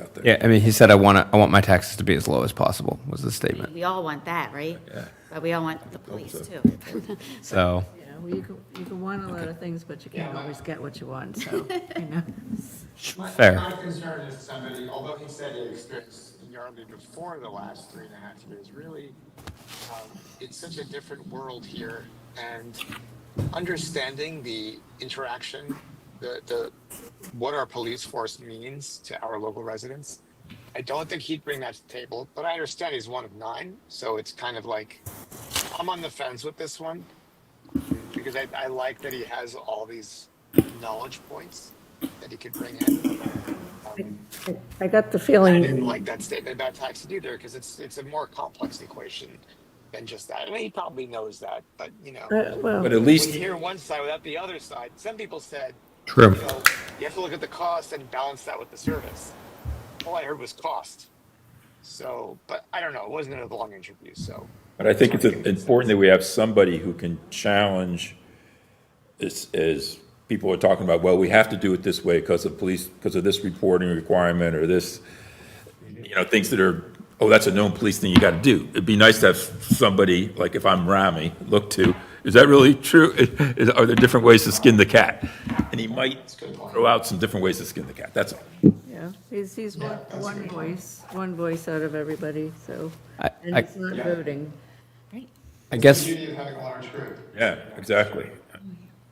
out there. Yeah, I mean, he said, I want to, I want my taxes to be as low as possible, was the statement. We all want that, right? Yeah. But we all want the police too. So, Yeah, well, you can, you can want a lot of things, but you can't always get what you want, so, you know. My- Fair. My concern is somebody, although he said he experienced Yardley before the last three and a half years, really, um, it's such a different world here. And understanding the interaction, the, the, what our police force means to our local residents, I don't think he'd bring that to the table, but I understand he's one of nine. So it's kind of like, I'm on the fence with this one because I, I like that he has all these knowledge points that he could bring in. Um, I got the I feeling. didn't like that statement about taxes either because it's it's a more complex equation than just that. I mean, he probably knows that, but you know, Uh, Well, But at when you least, hear one side without the other side, some people said, True. you know, you have to look at the cost and balance that with the service. All I heard was cost. So, but I don't know. It wasn't a long interview, so but I think it's important that we have somebody who can challenge, as, as people are talking about, well, we have to do it this way because of police, because of this reporting requirement or this, you know, things that are, oh, that's a known police thing you got to do. It'd be nice to have somebody, like if I'm Rami, look to, is that really true? Is- Are there different ways to skin the cat? And he might throw out some different ways to skin the cat, that's all. yeah, he's, he's one, one voice, one voice out of everybody, so, I, and I, he's not voting. I guess, of having a large group. Yeah, exactly.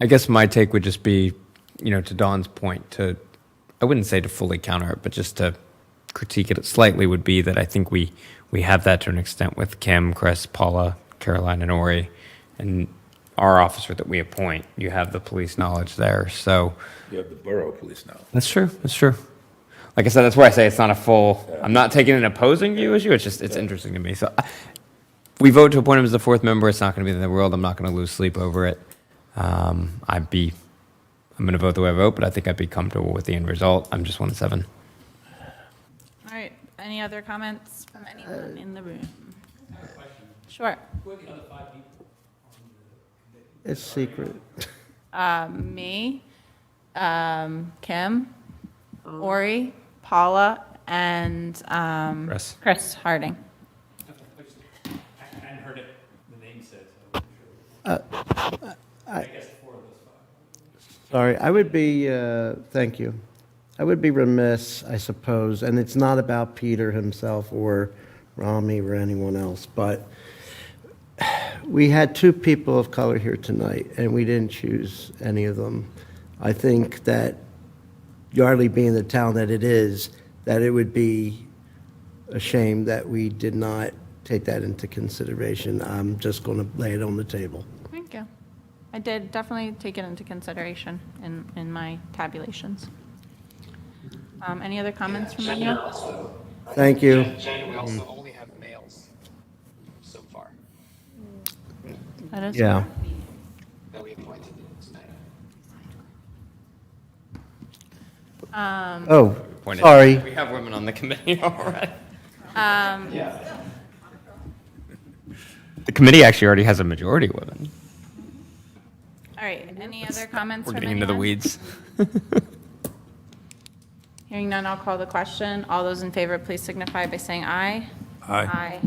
I guess my take would just be, you know, to Don's point, to, I wouldn't say to fully counter it, but just to critique it slightly would be that I think we, we have that to an extent with Kim, Chris, Paula, Caroline, and Ori. And our officer that we appoint, you have the police knowledge there. So, You have the borough police now. That's true. That's true. Like I said, that's why I say it's not a full. I'm not taking an opposing view issue. It's just it's interesting to me. So I, if we vote to appoint him as the fourth member. It's not going to be in the world. I'm not going to lose sleep over it. Um, I'd be. I'm going to vote the way I vote, but I think I'd be comfortable with the end result. I'm just one seven. All right, any other comments from anyone in the room? Sure. It's secret. Um, Me, um, Kim, Oh. Ori, Paula, and um, Chris. Chris Harding. I hadn't heard it, the name said, so. I guess four of those five. Sorry, I would be, uh, thank you. I would be remiss, I suppose, and it's not about Peter himself or Rami or anyone else, but we had two people of color here tonight, and we didn't choose any of them. I think that Yardley being the town that it is, that it would be a shame that we did not take that into consideration. I'm just going to lay it on the table. Thank you. I did definitely take it into consideration in, in my tabulations. Um, Any other comments from anyone? Thank you. Jen, we also Mm-hmm. only have males so far That is- Yeah. that we appointed tonight. Oh, sorry. We have women on the committee already. Um, The committee actually already has a majority of women. All right, any other comments We're from getting anyone? into the weeds. Hearing none, I'll call the question. All those in favor, please signify by saying aye. Aye.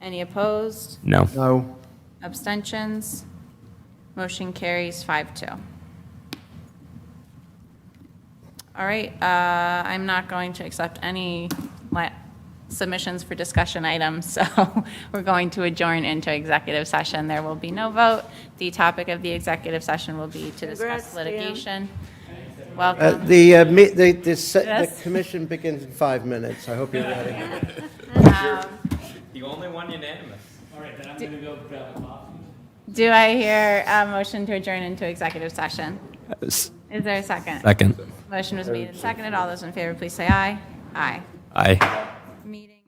Any opposed? No. No. Abstentions? Motion carries five two. All right, uh, I'm not going to accept any la- submissions for discussion items, so we're going to adjourn into executive session. There will be no vote. The topic of the executive session will be to Congrats, discuss Dan. litigation. Uh, Welcome. The, uh, me- the, the se- the Yes. commission begins in five minutes. I hope you're ready. The only one unanimous. All right, then I'm gonna go grab a coffee. Do I hear a motion to adjourn into executive session? Is there a second? Uh, Second. Motion was made and seconded. All those in favor, please say aye. Aye. Aye. Meeting.